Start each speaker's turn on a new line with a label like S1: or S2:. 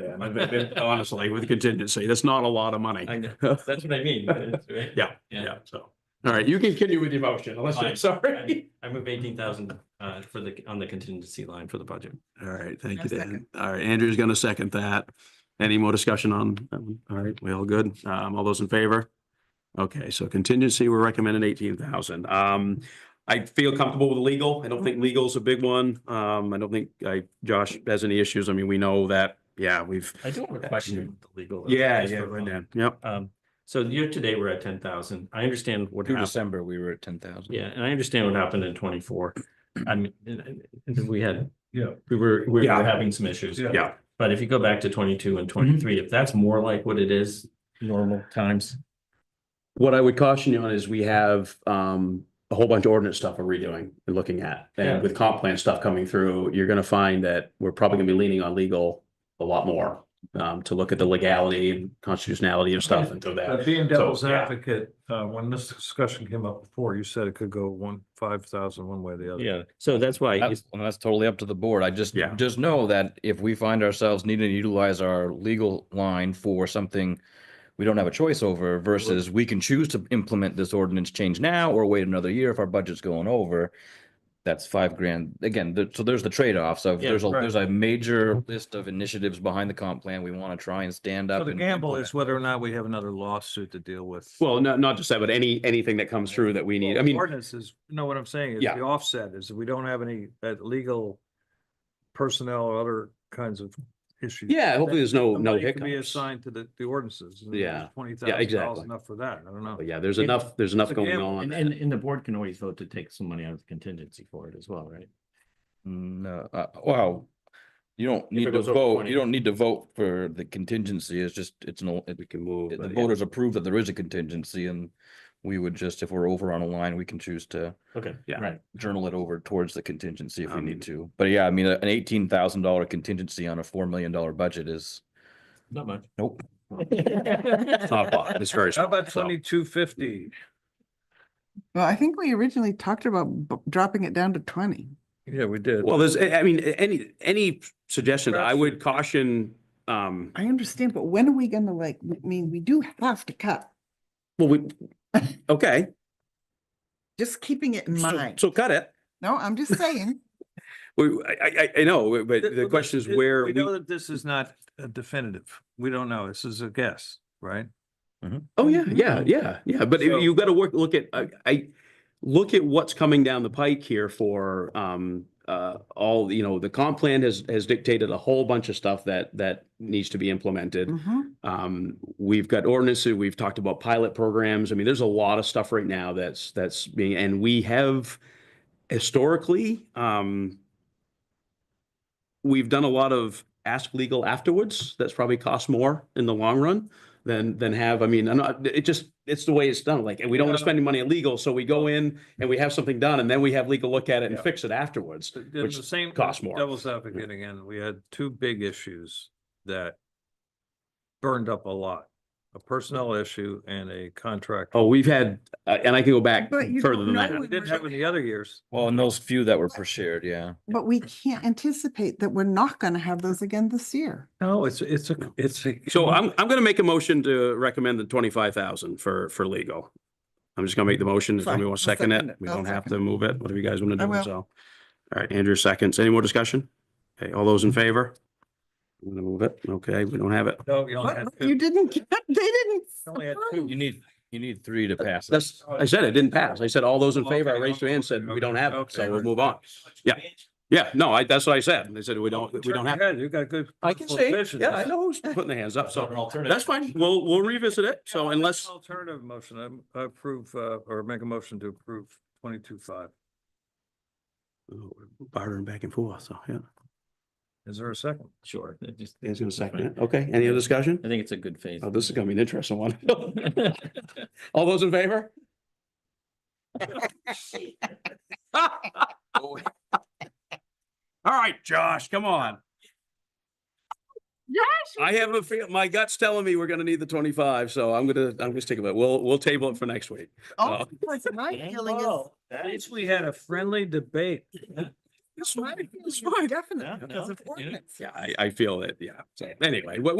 S1: yeah.
S2: I bet- bet- Honestly, with contingency, that's not a lot of money.
S1: I know, that's what I mean. it's, right?
S2: Yeah,
S1: Yeah.
S2: Yeah, so, all right, you can continue with your motion unless you're
S1: Fine.
S2: sorry.
S1: I I move eighteen thousand uh for the, on the contingency line for the budget.
S2: All right, thank
S3: I'll
S2: you, Dan.
S3: second.
S2: All right, Andrew's gonna second that. Any more discussion on, that one? all right, we all good? Um, all those in favor? Okay, so contingency, we're recommending eighteen thousand. Um, I feel comfortable with legal. I don't think legal's a big one. Um, I don't think I, Josh has any issues. I mean, we know that, yeah, we've.
S1: I do have a question with the legal.
S2: Yeah,
S1: just
S2: yeah,
S1: for
S2: right
S1: fun.
S2: now. Yep,
S1: Um, so year to date, we're at ten thousand. I understand what
S4: Through
S1: happened.
S4: December, we were at ten thousand.
S1: Yeah, and I understand what happened in twenty-four. I mean, and- and- and we had.
S5: Yeah.
S1: We were, we were
S2: Yeah.
S1: having some issues.
S5: Yeah.
S2: yeah,
S1: But if you go back to twenty-two and twenty-three, if that's more like what it is normal times.
S2: What I would caution you on is we have um a whole bunch of ordinance stuff we're redoing and looking at.
S1: Yeah.
S2: And with comp plan stuff coming through, you're gonna find that we're probably gonna be leaning on legal a lot more. Um, to look at the legality and constitutionality of stuff and through that.
S5: Uh, Being devil's
S2: yeah.
S5: advocate, uh, when this discussion came up before, you said it could go one, five thousand one way or the other.
S1: Yeah, so that's why.
S4: That's, well, that's totally up to the board. I just,
S2: Yeah.
S4: just know that if we find ourselves needing to utilize our legal line for something we don't have a choice over versus we can choose to implement this ordinance change now or wait another year if our budget's going over. That's five grand. Again, the, so there's the trade-offs of,
S1: Yeah,
S4: there's a,
S5: right.
S4: there's a major list of initiatives behind the comp plan. We want to try and stand up.
S5: So the
S4: and
S5: gamble
S4: implement.
S5: is whether or not we have another lawsuit to deal with.
S2: Well, not not just that, but any anything that comes through that we need. I
S5: Well,
S2: mean,
S5: Ordinances, you know what I'm saying, is
S2: Yeah.
S5: the offset is we don't have any uh, legal personnel or other kinds of issues.
S2: yeah, hopefully there's no
S5: The
S2: no
S5: money could Be
S2: hiccups.
S5: assigned to the, the ordinances.
S2: Yeah.
S5: Twenty thousand dollars
S2: exactly.
S5: enough for that, I don't know.
S2: But Yeah, there's enough, there's enough
S5: It's a
S2: going
S5: gamble.
S2: on.
S1: And, and, and the board can always vote to take some money out of the contingency for it as well, right?
S4: No, uh, wow. You don't
S2: it
S4: need to
S2: goes over
S4: vote,
S2: 20.
S4: you don't need to vote for the contingency, it's just, it's no, it-
S2: We can move.
S4: the
S2: but yeah.
S4: voters approve that there is a contingency and we would just, if we're over on a line, we can choose to
S1: Okay.
S2: Yeah.
S1: Right.
S4: journal it over towards the contingency if we
S2: Um,
S4: need to. But yeah, I mean, a- an eighteen thousand dollar contingency on a four million dollar budget is,
S1: Not much.
S4: nope.
S2: It's not a lot. Oh, It's very
S5: How
S2: small.
S5: about
S2: so.
S5: twenty-two fifty?
S3: Well, I think we originally talked about b- dropping it down to twenty.
S5: Yeah, we did.
S2: Well, there's, I I mean, any any suggestions, I
S5: Perhaps-
S2: would caution um
S3: I understand, but when are we gonna like, I mean, we do have to cut,
S2: Well, we, okay,
S3: just keeping it in
S2: so,
S3: mind.
S2: so cut it.
S3: No, I'm just saying,
S2: We, I, I, I know, but
S5: Th-
S2: the
S5: well,
S2: question is
S5: it-
S2: where
S5: We
S2: we,
S5: know that this is not uh, definitive. We don't know. This is a guess, right?
S2: oh, yeah, yeah, yeah, yeah, but
S5: So-
S2: you- you've got to work, look at, I, I, look at what's coming down the pike here for, um, uh, all, you know, the comp plan has, has dictated a whole bunch of stuff that, that needs to be implemented.
S3: Mhm.
S2: Um, we've got ordinances, we've talked about pilot programs. I mean, there's a lot of stuff right now that's, that's being, and we have historically, um, we've done a lot of ask legal afterwards. That's probably cost more in the long run than, than have, I mean, I'm not, it just, it's the way it's done. Like, and we don't want to
S5: Yeah.
S2: spend any money on legal, so we go in and we have something done and then we have legal look at it and
S5: Yeah.
S2: fix it afterwards.
S5: The- the-
S2: Which
S5: the same
S2: costs more. Mm-hmm.
S5: Devil's advocate again. We had two big issues that burned up a lot, a personnel issue and a contract.
S2: Mm-hmm. Oh, we've had, uh, and I can go back
S3: But you
S2: further
S3: don't
S2: than
S3: know
S2: that.
S3: we
S5: It Didn't happen the other years.
S4: Well, and those few that were per shared, yeah.
S3: but we can't anticipate that we're not gonna have those again this year.
S5: No, it's, it's a, it's a.
S3: Mm-hmm.
S2: So I'm, I'm gonna make a motion to recommend the twenty-five thousand for, for legal. I'm just gonna make the motion. If
S3: Fine.
S2: somebody wants to
S3: I'll
S2: second
S3: second
S2: it,
S3: it.
S2: we
S3: I'll
S2: don't have
S3: second
S2: to move it, whatever you guys wanna
S3: I
S2: do,
S3: will.
S2: so. All right, Andrew seconds. Any more discussion? Okay, all those in
S3: Mm-hmm.
S2: favor? I'm gonna move it. Okay, we don't have it.
S5: No, you only
S3: What?
S5: had
S3: You
S5: two.
S3: didn't, get- they didn't.
S5: only had
S3: approve.
S4: You need, you need three to pass. it.
S2: That's, I said it didn't pass. I said all those in favor. I
S5: Okay,
S2: raised my hand, said we
S5: okay,
S2: don't have it,
S5: okay.
S2: so we'll move on. Yeah. Yeah, no, I, that's what I said. They said we don't, we don't have. it.
S5: You got good.
S2: I can
S5: political
S2: say,
S5: vision.
S2: yeah, I know who's putting their hands up,
S1: So an
S2: so Oh,
S1: alternative.
S2: that's fine. We'll, we'll revisit it. So
S5: Yeah,
S2: unless.
S5: Alternative motion, I'm- I approve, uh, or make a motion to approve twenty-two five.
S2: Bartering back and forth, so, yeah.
S5: Is there a second?
S1: Sure. it just-
S2: Dan's gonna second it. Okay, any other discussion?
S1: I think it's a good phase.
S2: Oh, this is gonna be an interesting one. All those in favor? All right, Josh, come on. I have a feel, my gut's telling me we're gonna need the twenty-five, so I'm gonna, I'm gonna stick with it. We'll, we'll table it for next week.
S3: Oh, because my feeling is,
S5: At least we had a friendly debate.
S2: It's fine, it's fine.
S3: Definitely,
S1: Yeah,
S3: because
S1: no,
S3: of
S1: it-
S3: ordinance.
S2: Yeah, I, I feel it, yeah. So anyway, what,